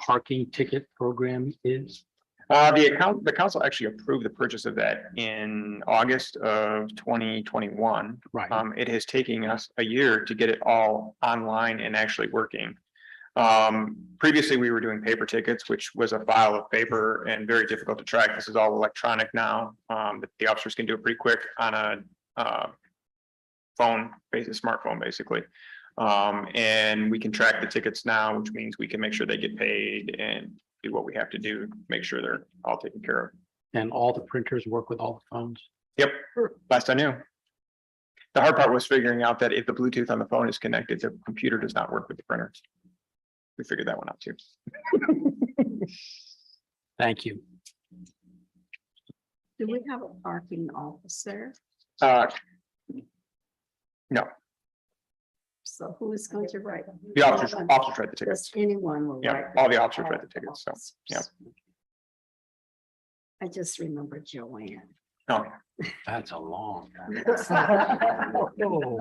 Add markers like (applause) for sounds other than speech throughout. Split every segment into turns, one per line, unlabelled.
parking ticket program is?
Uh, the account, the council actually approved the purchase of that in August of twenty twenty-one.
Right,
Um, it has taken us a year to get it all online and actually working. Um, previously, we were doing paper tickets, which was a file of paper and very difficult to track. This is all electronic now. Um, but the officers can do it pretty quick on a, uh, phone, basis, smartphone, basically. Um, and we can track the tickets now, which means we can make sure they get paid and do what we have to do, to make sure they're all taken care of.
and all the printers work with all the phones?
Yep, last I knew. The hard part was figuring out that if the Bluetooth on the phone is connected, the computer does not work with the printer. We figured that one out too.
Thank you.
Do we have a parking officer?
Uh,
So who is going to write?
the officers, officers read the tickets.
Just anyone will
Yeah,
write.
all the officers read the tickets, so, yeah.
officers. I just remember Joanne.
No,
That's a long. time.
(laughs) I
Oh,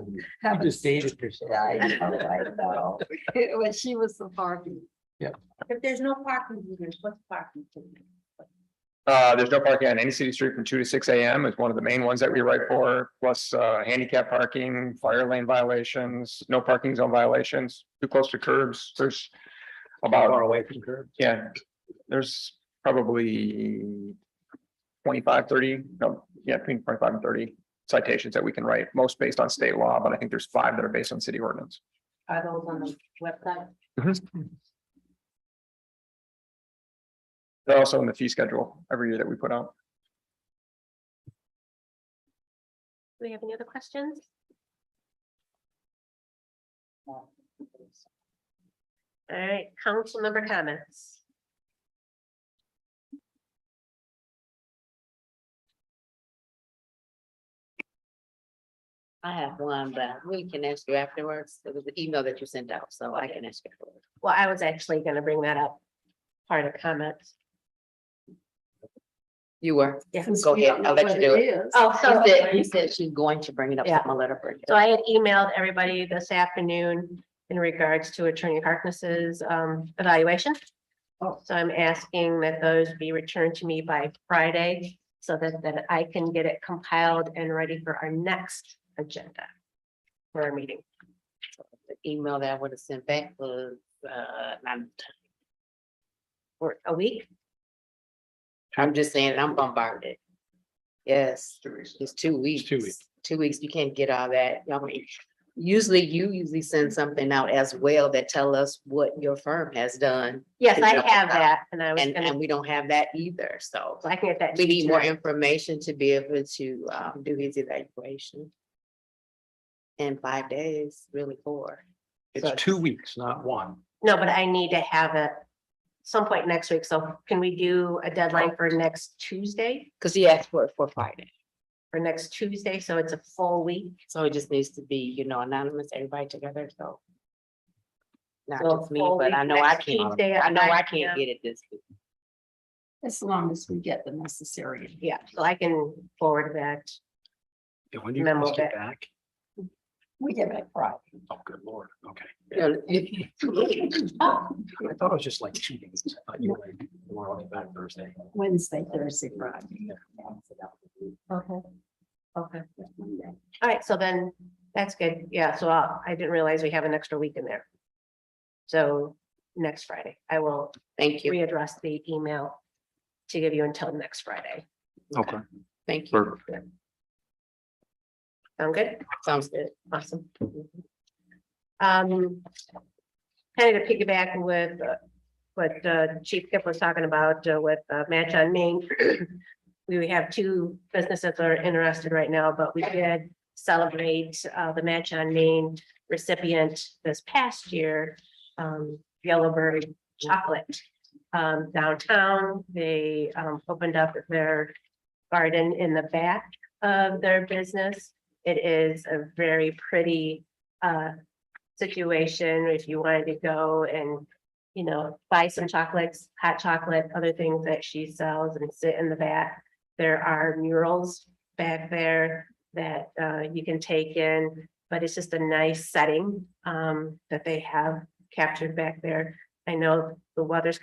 You
(laughs)
just dated yourself.
know, I know. (laughs) When she was the parking.
Yeah.
If there's no parking, meters, what's parking?
uh, there's no parking on any city street from two to six AM is one of the main ones that we write for, plus, uh, handicap parking, fire lane violations, no parking zone violations, too close to curbs, there's about
Far away from curb.
Yeah, there's probably 25, 30. no, yeah, between twenty-five and thirty citations that we can write, most based on state law, but I think there's five that are based on city ordinance.
Are those on the website?
They're also in the fee schedule every year that we put out.
Do we have any other questions? All right, council member comments.
I have one, but we can ask you afterwards. It was the email that you sent out, so I can ask you. afterwards.
Well, I was actually gonna bring that up. Part of comments.
You were.
Yeah.
Go ahead. I'll let you do it.
Oh, so,
She said, you said she's going to bring it up.
Yeah.
so I'm gonna let her bring it
so
up.
I had emailed everybody this afternoon in regards to Attorney Harkness's um evaluation.
Oh.
So I'm asking that those be returned to me by Friday so that that I can get it compiled and ready for our next agenda. For our meeting.
The email that I would have sent back was, uh, I'm,
or a week.
I'm just saying, I'm bombarded. Yes, it's two weeks.
two weeks.
Two weeks, you can't get all that. I mean, usually you usually send something out as well that tell us what your firm has done.
Yes,
to
I
jump
have
out.
that and I was
And,
gonna,
and we don't have that either, so.
so I can get that. to
We
you
need more
tonight.
information to be able to um do his evaluation. In five days, really four.
It's two weeks, not one.
No, but I need to have it some point next week. So can we do a deadline for next Tuesday?
Cause he asked for it for Friday,
For next Tuesday, so it's a full week.
so it just needs to be, you know, anonymous, everybody together, so. Not
So
just me,
full
but I
week
know I
next
can't,
Tuesday at
I know I
9
can't
p.m.
get it this week.
As long as we get the necessary.
Yeah, so I can forward that.
Yeah, When do you
Memo
guys get
back.
back?
We get it Friday. (laughs)
Oh, good lord, okay.
(laughs)
Oh,
I thought it was just like two days. I thought you were like, you were only back Thursday.
Wednesday, Thursday, Friday.
Okay. Okay.
Monday.
All right, so then that's good. Yeah, so I'll- I didn't realize we have an extra week in there. So next Friday, I will
Thank you,
readdress the email to give you until next Friday.
Okay.
thank you,
perfect.
Sound good?
sounds good.
Awesome. Um, kind of to piggyback with uh, what uh, Chief Kip was talking about uh, with uh, Match on Main. (clears throat) We have two businesses that are interested right now, but we did celebrate uh, the Match on Main recipient this past year. um, Yellowbird Chocolate um, downtown. They um, opened up their garden in the back of their business. It is a very pretty uh situation if you wanted to go and, you know, buy some chocolates, hot chocolate, other things that she sells and sit in the back. There are murals back there that uh you can take in, but it's just a nice setting um that they have captured back there. I know the weather's